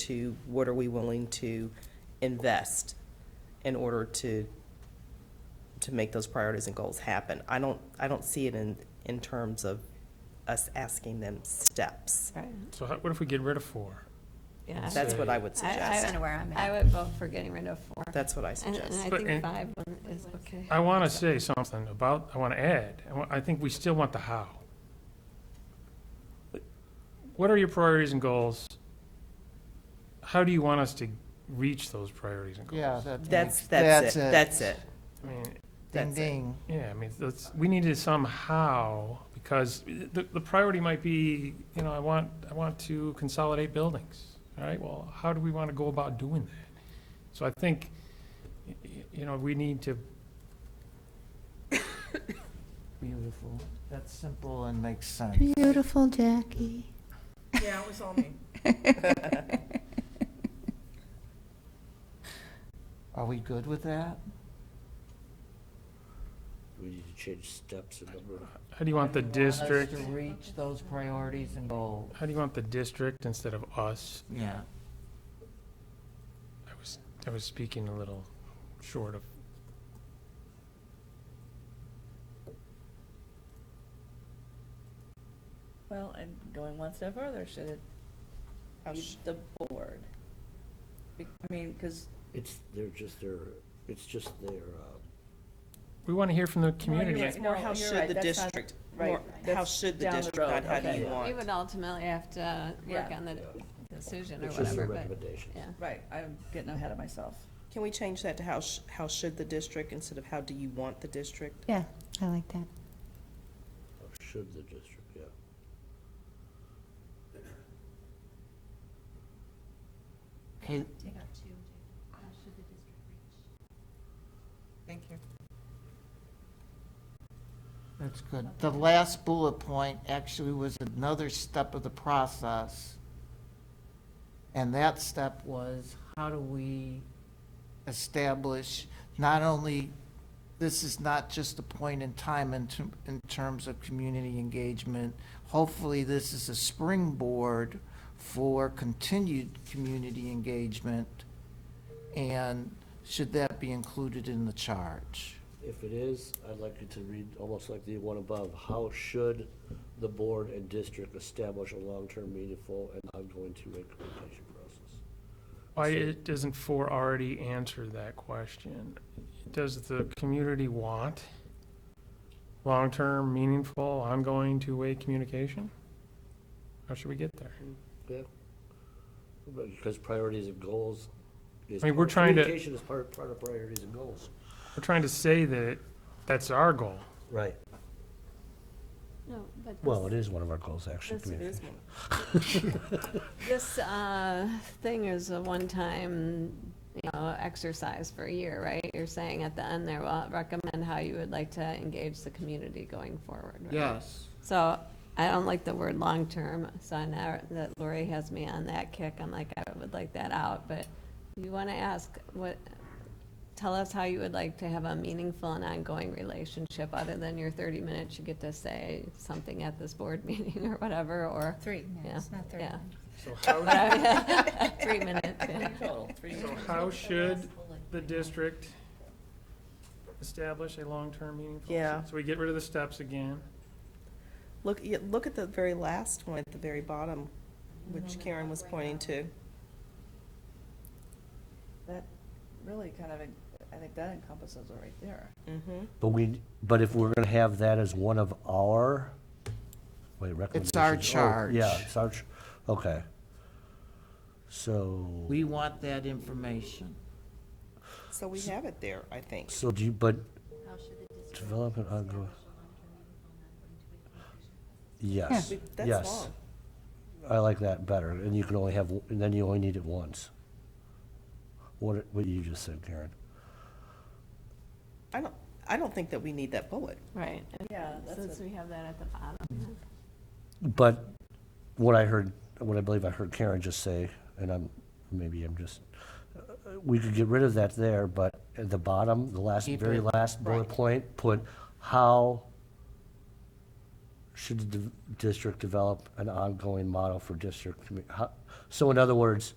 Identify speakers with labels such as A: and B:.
A: to what are we willing to invest in order to, to make those priorities and goals happen. I don't, I don't see it in, in terms of us asking them steps.
B: Right.
C: So how- what if we get rid of four?
B: Yeah. I
A: That's
B: would-
A: what I would
B: I- I-
A: suggest.
D: Kinda where I'm
B: I
D: at.
B: would vote for getting rid of four.
A: That's what I
B: And and
A: suggest.
B: I
C: But
B: think
C: in-
B: five one is okay.
C: I want to say something about, I want to add, I wa- I think we still want the how. What are your priorities and goals? How do you want us to reach those priorities and goals?
E: Yeah, that.
A: That's,
E: makes-
A: that's it, that's it.
C: I mean,
E: Ding,
A: That's it.
E: ding.
C: yeah, I mean, that's, we need to somehow, because the, the priority might be, you know, I want, I want to consolidate buildings. All right, well, how do we want to go about doing that? So I think, y- y- you know, we need to
E: Beautiful. That's simple and makes sense.
F: Beautiful Jackie.
G: Yeah, it was all me.
E: Are we good with that?
H: We need to change steps and number.
C: How do you want the district,
E: to reach those priorities and goals.
C: how do you want the district instead of us?
E: Yeah.
C: I was, I was speaking a little short of,
G: Well, and going one step further, should it
A: Oh,
G: be
A: sh-
G: the board? Be- I mean, because
H: It's, they're just their, it's just their, uh,
C: we want to hear from the community.
G: right.
A: It's more
G: No,
A: how
G: you're
A: should
G: right,
A: the
G: that's not-
A: district,
G: right,
A: more how
G: that's
A: should the
G: down the
A: district,
G: road,
A: not how do
G: okay.
A: you
G: Yeah.
B: We
A: want?
B: would ultimately have to work
G: Yeah.
B: on the
H: Yeah.
B: decision or
H: it's just their
B: whatever, but,
H: recommendations.
B: yeah.
G: right, I'm getting ahead of myself.
A: Can we change that to how, sh- how should the district instead of how do you want the district?
F: Yeah, I like that.
H: Or Should the district, yeah.
E: Okay,
G: Thank you.
E: that's good. The last bullet point actually was another step of the process. And that step was, how do we establish not only, this is not just a point in time in, ter- in terms of community engagement. Hopefully, this is a springboard for continued community engagement. And should that be included in the charge?
H: If it is, I'd like you to read almost like the one above. How should the board and district establish a long-term meaningful and ongoing two-way communication process?
C: Why it doesn't four already answer that question? Does the community want long-term, meaningful, ongoing, two-way communication? How should we get there?
H: Yeah? Because priorities and goals is.
C: I mean, we're trying to-
H: Communication is part, part of priorities and goals.
C: We're trying to say that that's our goal.
H: Right.
B: No, but
H: Well, it is one of our goals, actually.
B: That's- it
H: communication.
B: this uh, thing is a one-time, you know, exercise for a year, right? You're saying at the end there, well, recommend how you would like to engage the community going forward. right?
E: Yes.
B: So I don't like the word long-term, so I know that Lori has me on that kick. I'm like, I would like that out, but you want to ask what, tell us how you would like to have a meaningful and ongoing relationship other than your 30 minutes you get to say something at this board meeting or whatever, or,
D: Three, no,
B: Yeah,
D: it's not three.
B: yeah.
C: So how,
B: Three minutes, yeah.
G: Total, three
C: so how should the district establish a long-term, meaningful?
A: Yeah.
C: So we get rid of the steps again.
A: Look, yeah, look at the very last one at the very bottom, which Karen was pointing to.
G: That really kind of, en- I think that encompasses it right there.
A: Mm-hmm.
H: But we, but if we're gonna have that as one of our, wait, recommendations?
E: It's our
H: Oh,
E: charge.
H: Yeah, it's our, ch- okay. So,
E: We want that information.
A: So we have it there, I think.
H: so do you, but develop an ongoing. Yes,
A: We- That's
H: yes.
A: long.
H: I like that better, and you can only have, w- and then you only need it once. What, it- what you just said, Karen.
A: I don't, I don't think that we need that bullet.
B: right?
G: Yeah, that's
B: Since
G: what-
B: we have that at the bottom.
H: But what I heard, what I believe I heard Karen just say, and I'm, maybe I'm just, uh, we could get rid of that there, but at the bottom, the last,
E: Keep
H: very
E: it,
H: last bullet
E: right.
H: point, put how should the div- district develop an ongoing model for district, commu- how, so in other words,